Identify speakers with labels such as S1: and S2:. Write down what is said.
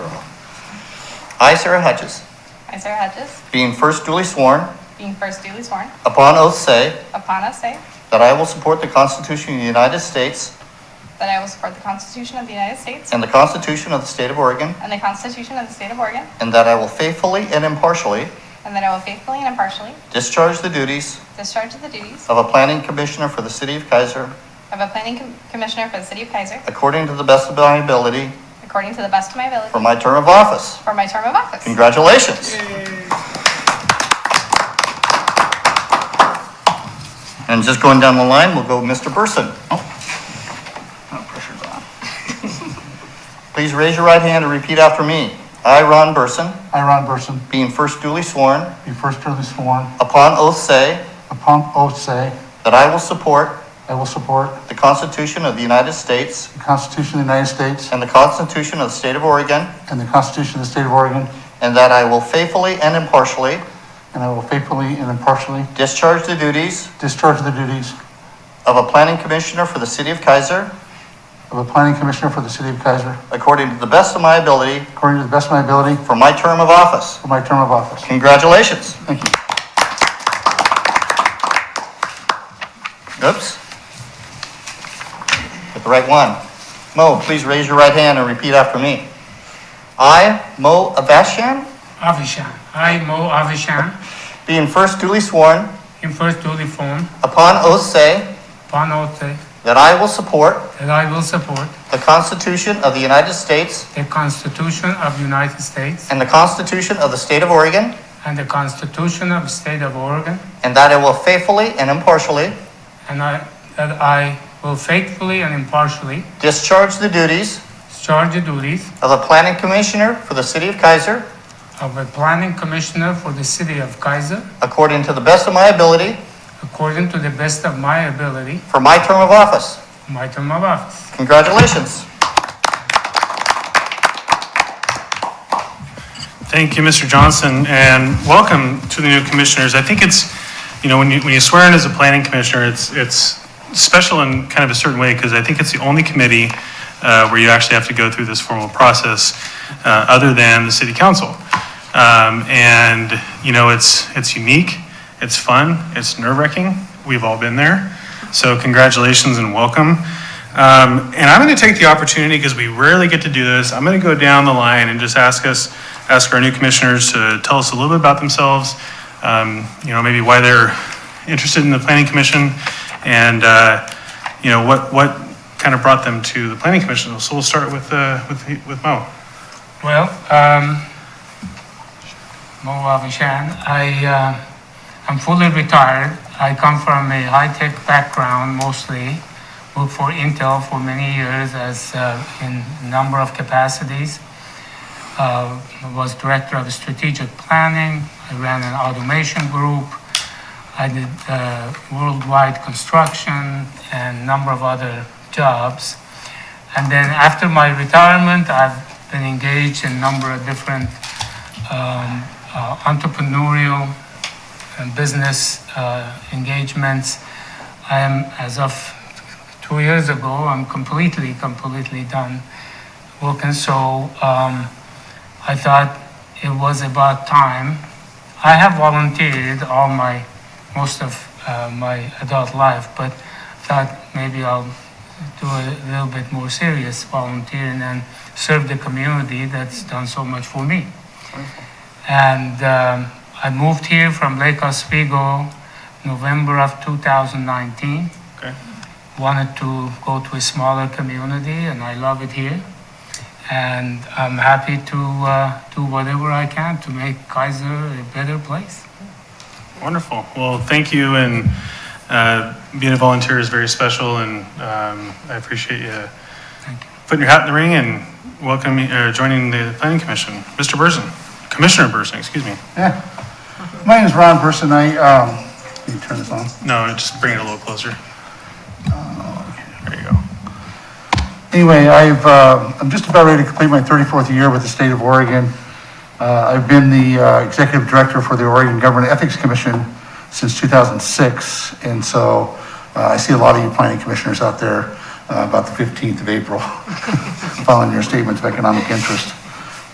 S1: I, Sarah Hedges,
S2: I, Sarah Hedges,
S1: being first duly sworn,
S2: being first duly sworn,
S1: upon oath say
S2: upon us say
S1: that I will support the Constitution of the United States
S2: that I will support the Constitution of the United States
S1: and the Constitution of the State of Oregon,
S2: and the Constitution of the State of Oregon,
S1: and that I will faithfully and impartially
S2: and that I will faithfully and impartially
S1: discharge the duties
S2: discharge the duties
S1: of a planning commissioner for the City of Kaiser
S2: of a planning com- commissioner for the City of Kaiser
S1: according to the best of my ability
S2: according to the best of my ability
S1: for my term of office.
S2: for my term of office.
S1: Congratulations. And just going down the line, we'll go Mr. Burson. Oh, no pressure's on. Please raise your right hand and repeat after me. I, Ron Burson,
S3: I, Ron Burson,
S1: being first duly sworn,
S3: be first duly sworn,
S1: upon oath say
S3: upon oath say,
S1: that I will support
S3: I will support
S1: the Constitution of the United States
S3: the Constitution of the United States
S1: and the Constitution of the State of Oregon,
S3: and the Constitution of the State of Oregon,
S1: and that I will faithfully and impartially
S3: and I will faithfully and impartially
S1: discharge the duties
S3: discharge the duties
S1: of a planning commissioner for the City of Kaiser
S3: of a planning commissioner for the City of Kaiser
S1: according to the best of my ability
S3: according to the best of my ability
S1: for my term of office.
S3: for my term of office.
S1: Congratulations.
S3: Thank you.
S1: Oops. Get the right one. Mo, please raise your right hand and repeat after me. I, Mo Avashan,
S4: Avishan. I, Mo Avishan,
S1: being first duly sworn,
S4: in first duly form,
S1: upon oath say
S4: upon oath say
S1: that I will support
S4: that I will support
S1: the Constitution of the United States
S4: the Constitution of the United States
S1: and the Constitution of the State of Oregon,
S4: and the Constitution of the State of Oregon,
S1: and that I will faithfully and impartially
S4: and I, that I will faithfully and impartially
S1: discharge the duties
S4: discharge the duties
S1: of a planning commissioner for the City of Kaiser
S4: of a planning commissioner for the City of Kaiser
S1: according to the best of my ability
S4: according to the best of my ability,
S1: for my term of office.
S4: my term of office.
S1: Congratulations.
S5: Thank you, Mr. Johnson, and welcome to the new commissioners. I think it's, you know, when you, when you swear in as a planning commissioner, it's, it's special in kind of a certain way, because I think it's the only committee uh, where you actually have to go through this formal process, uh, other than the city council. Um, And, you know, it's, it's unique, it's fun, it's nerve-wracking, we've all been there. So congratulations and welcome. Um, And I'm going to take the opportunity, because we rarely get to do this, I'm going to go down the line and just ask us, ask our new commissioners to tell us a little bit about themselves, um, you know, maybe why they're interested in the planning commission, and, uh, you know, what, what kind of brought them to the planning commission. So we'll start with, uh, with with Mo.
S4: Well, um, Mo Avishan, I, uh, I'm fully retired. I come from a high-tech background mostly. Worked for Intel for many years as, uh, in number of capacities. Uh, was director of strategic planning. I ran an automation group. I did, uh, worldwide construction and number of other jobs. And then after my retirement, I've been engaged in a number of different um, uh, entrepreneurial and business uh, engagements. I am, as of two years ago, I'm completely, completely done working. So um, I thought it was about time. I have volunteered all my, most of uh, my adult life, but thought maybe I'll do a little bit more serious volunteering and serve the community that's done so much for me. And um, I moved here from Lake Oswego, November of 2019.
S5: Okay.
S4: Wanted to go to a smaller community, and I love it here. And I'm happy to uh, do whatever I can to make Kaiser a better place.
S5: Wonderful. Well, thank you, and uh, being a volunteer is very special, and um, I appreciate you
S4: Thank you.
S5: putting your hat in the ring and welcoming, or joining the planning commission. Mr. Burson, Commissioner Burson, excuse me.
S3: Yeah. My name is Ron Burson. I, um, can you turn this on?
S5: No, just bring it a little closer.
S4: Oh,
S5: There you go.
S3: Anyway, I've, uh, I'm just about ready to complete my 34th year with the state of Oregon. Uh, I've been the uh, executive director for the Oregon Government Ethics Commission since 2006, and so uh, I see a lot of you planning commissioners out there uh, about the 15th of April, following your statements of economic interest.